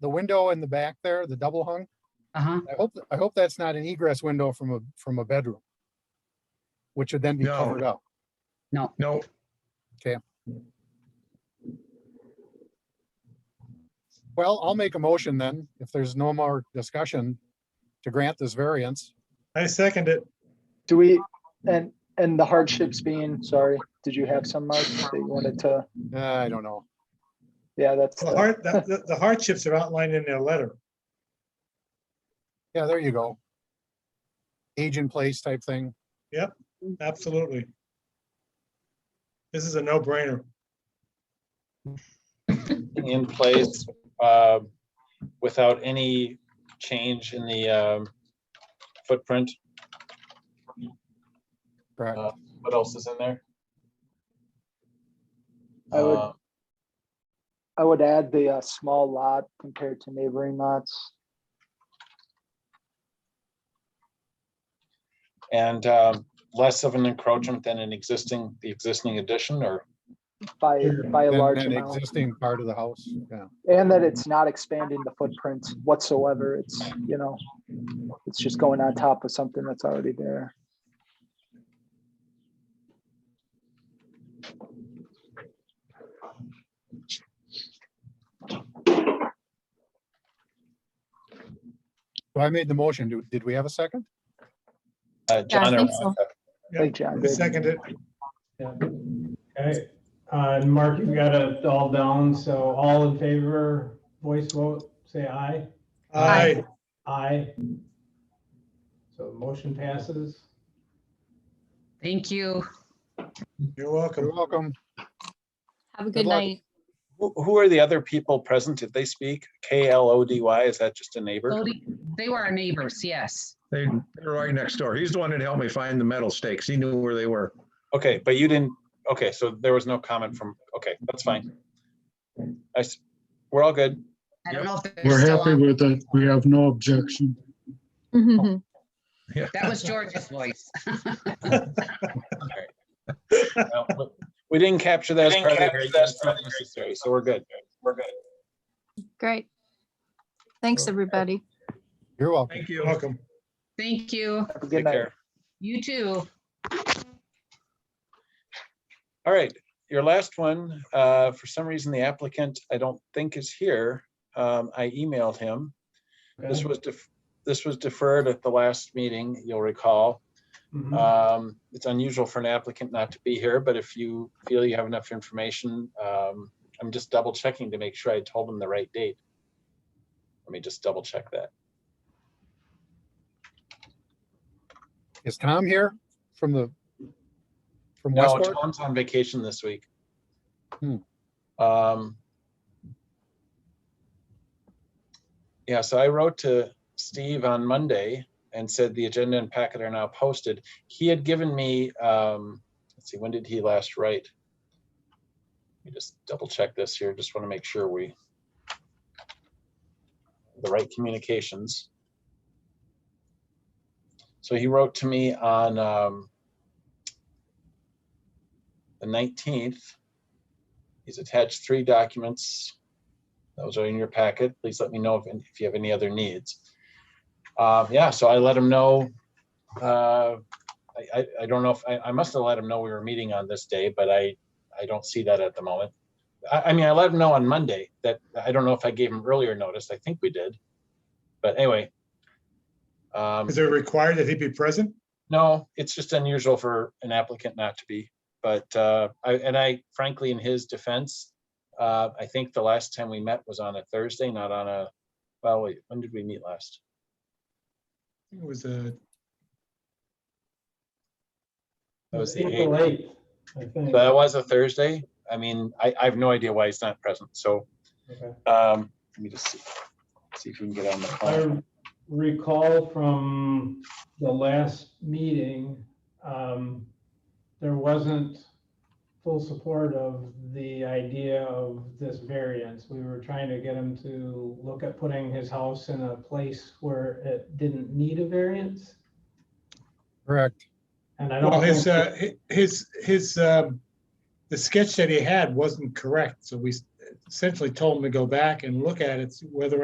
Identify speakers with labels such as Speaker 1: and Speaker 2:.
Speaker 1: the window in the back there, the double hung,
Speaker 2: Uh-huh.
Speaker 1: I hope, I hope that's not an egress window from a, from a bedroom. Which would then be
Speaker 3: No.
Speaker 1: covered up.
Speaker 2: No,
Speaker 3: No,
Speaker 1: Well, I'll make a motion then, if there's no more discussion to grant this variance.
Speaker 3: I second it.
Speaker 4: Do we, and, and the hardships being, sorry, did you have some, Mark, that you wanted to,
Speaker 1: Uh, I don't know.
Speaker 4: yeah, that's,
Speaker 3: The
Speaker 4: the-
Speaker 3: hard- the- the- the hardships are outlined in their letter.
Speaker 1: Yeah, there you go. Age in place type thing.
Speaker 3: Absolutely. This is a no-brainer.
Speaker 5: in place uh, without any change in the um, footprint.
Speaker 1: Correct.
Speaker 5: Uh, What else is in there?
Speaker 4: I would-
Speaker 5: Uh,
Speaker 4: I would add the uh, small lot compared to neighboring lots.
Speaker 5: And um, less of an encroachment than an existing, the existing addition or,
Speaker 4: By, by a
Speaker 1: Than-
Speaker 4: large
Speaker 1: than
Speaker 4: amount,
Speaker 1: Existing part of the house, yeah.
Speaker 4: and that it's not expanding the footprint whatsoever, it's, you know, it's just going on top of something that's already there.
Speaker 1: So I made the motion. Do- Did we have a second?
Speaker 5: uh, John or
Speaker 6: think so.
Speaker 5: Monica?
Speaker 4: Thank you, John.
Speaker 3: I second it.
Speaker 7: Yeah. Okay, uh, and Mark, you got it all down, so all in favor, voice vote, say aye.
Speaker 3: Aye.
Speaker 7: Aye. So motion passes.
Speaker 2: thank you.
Speaker 3: You're
Speaker 1: You're
Speaker 3: welcome.
Speaker 1: welcome.
Speaker 6: Have a
Speaker 1: Good
Speaker 6: good
Speaker 1: luck.
Speaker 6: night.
Speaker 5: Who who are the other people present? Did they speak? K L O D Y, is that just a neighbor?
Speaker 2: Lodi- They were our neighbors, yes.
Speaker 8: They, they're right next door. He's the one that helped me find the metal stakes. He knew where they were.
Speaker 5: Okay, but you didn't, okay, so there was no comment from, okay, that's fine. I, s- we're all good.
Speaker 2: I don't know if they're
Speaker 9: We're
Speaker 2: still
Speaker 9: happy
Speaker 2: on.
Speaker 9: with it. We have no objection.
Speaker 1: Oh.
Speaker 6: Mhm.
Speaker 8: Yeah.
Speaker 2: That was George's voice.
Speaker 5: No, but We didn't capture that
Speaker 3: We
Speaker 5: as
Speaker 3: didn't
Speaker 5: part of the
Speaker 3: capture
Speaker 5: great
Speaker 3: that as
Speaker 5: concern necessary, so we're good. We're good.
Speaker 6: Great. Thanks, everybody.
Speaker 1: You're welcome.
Speaker 8: Thank
Speaker 3: You're
Speaker 8: you.
Speaker 3: welcome.
Speaker 2: Thank you.
Speaker 4: Have a good
Speaker 5: Take
Speaker 4: night.
Speaker 5: care.
Speaker 2: You too.
Speaker 5: All right, your last one, uh, for some reason, the applicant, I don't think is here. Um, I emailed him. This
Speaker 7: Okay.
Speaker 5: was, def- this was deferred at the last meeting, you'll recall.
Speaker 7: Mhm.
Speaker 4: Mm-hmm.
Speaker 5: Um, it's unusual for an applicant not to be here, but if you feel you have enough information, um, I'm just double checking to make sure I told him the right date. Let me just double check that.
Speaker 1: Is Tom here from the, from
Speaker 5: No,
Speaker 1: Westport?
Speaker 5: Tom's on vacation this week.
Speaker 1: Hmm.
Speaker 5: Um. Yeah, so I wrote to Steve on Monday and said the agenda and packet are now posted. He had given me, um, let's see, when did he last write? Let me just double check this here. Just want to make sure we the right communications. So he wrote to me on, um, the nineteenth. He's attached three documents. Those are in your packet. Please let me know if, if you have any other needs. Uh, yeah, so I let him know. uh, I, I, I don't know if, I, I must have let him know we were meeting on this day, but I, I don't see that at the moment. I, I mean, I let him know on Monday that, I don't know if I gave him earlier notice. I think we did. But anyway. um,
Speaker 3: Is it required that he be present?
Speaker 5: no, it's just unusual for an applicant not to be, but, uh, I, and I frankly, in his defense, uh, I think the last time we met was on a Thursday, not on a, well, wait, when did we meet last?
Speaker 3: It was uh, a,
Speaker 5: That was the
Speaker 7: April
Speaker 5: eighth.
Speaker 7: 8th, I think.
Speaker 5: That was a Thursday. I mean, I, I have no idea why he's not present, so,
Speaker 7: Okay.
Speaker 5: um, let me just see, see if we can get on the phone.
Speaker 7: I recall from the last meeting, um, there wasn't full support of the idea of this variance. We were trying to get him to look at putting his house in a place where it didn't need a variance.
Speaker 1: Correct.
Speaker 7: And I
Speaker 3: well,
Speaker 7: don't
Speaker 3: his,
Speaker 7: think,
Speaker 3: uh, hi- his, his, um, the sketch that he had wasn't correct, so we, essentially told them to go back and look at it, see whether